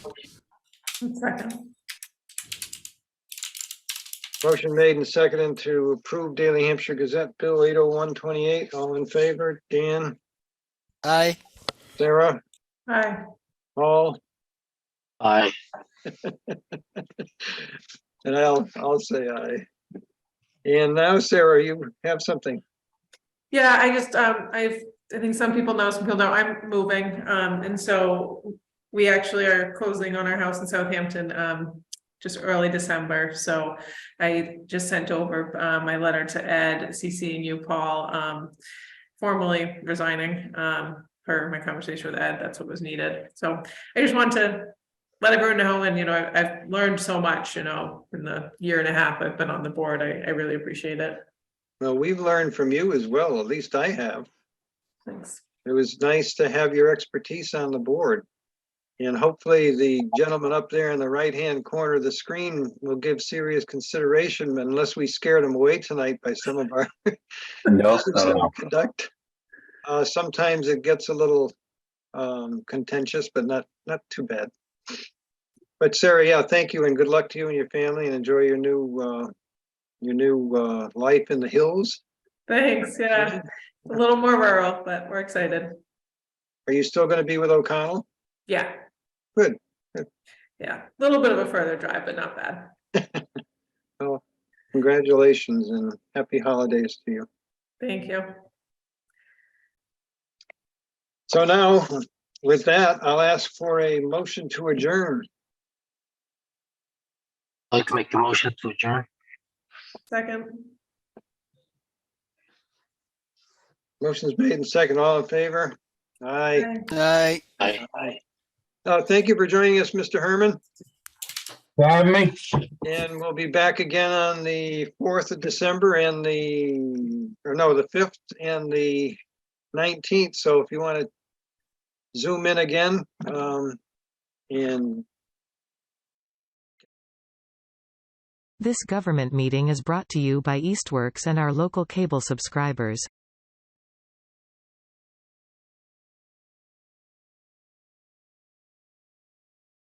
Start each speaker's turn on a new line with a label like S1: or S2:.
S1: Second.
S2: Motion made and seconded to approve Daily Hampshire Gazette Bill eight oh one twenty-eight. All in favor, Dan,
S3: Aye.
S2: Sarah,
S1: Aye.
S2: Paul,
S4: Aye.
S2: and I'll, I'll say aye. And now, Sarah, you have something.
S1: Yeah, I just, um, I've, I think some people know, some people know I'm moving, um, and so we actually are closing on our house in Southampton, um, just early December, so I just sent over, uh, my letter to Ed, CC and you, Paul, um, formally resigning, um, per my conversation with Ed, that's what was needed, so I just want to let everyone know, and you know, I- I've learned so much, you know, in the year and a half I've been on the board, I, I really appreciate it,
S2: Well, we've learned from you as well, at least I have.
S1: thanks.
S2: It was nice to have your expertise on the board. And hopefully the gentleman up there in the right-hand corner of the screen will give serious consideration unless we scared him away tonight by some of our
S4: No,
S2: ethics that we conduct. Uh, sometimes it gets a little um, contentious, but not, not too bad. But Sarah, yeah, thank you and good luck to you and your family and enjoy your new, uh, your new uh, life in the hills.
S1: Thanks, yeah, a little more rural, but we're excited,
S2: Are you still going to be with O'Connell?
S1: yeah.
S2: Good, good.
S1: Yeah, a little bit of a further drive, but not bad.
S2: Congratulations and happy holidays to you.
S1: Thank you.
S2: So now, with that, I'll ask for a motion to adjourn.
S4: I'd like to make the motion to adjourn.
S1: Second,
S2: Motion's made and second. All in favor? Aye.
S1: Aye.
S3: Aye.
S4: Aye.
S2: Aye. Uh, thank you for joining us, Mr. Herman.
S5: Have me.
S2: And we'll be back again on the fourth of December and the, or no, the fifth and the nineteenth. So if you want to zoom in again, um, and
S6: This government meeting is brought to you by Eastworks and our local cable subscribers.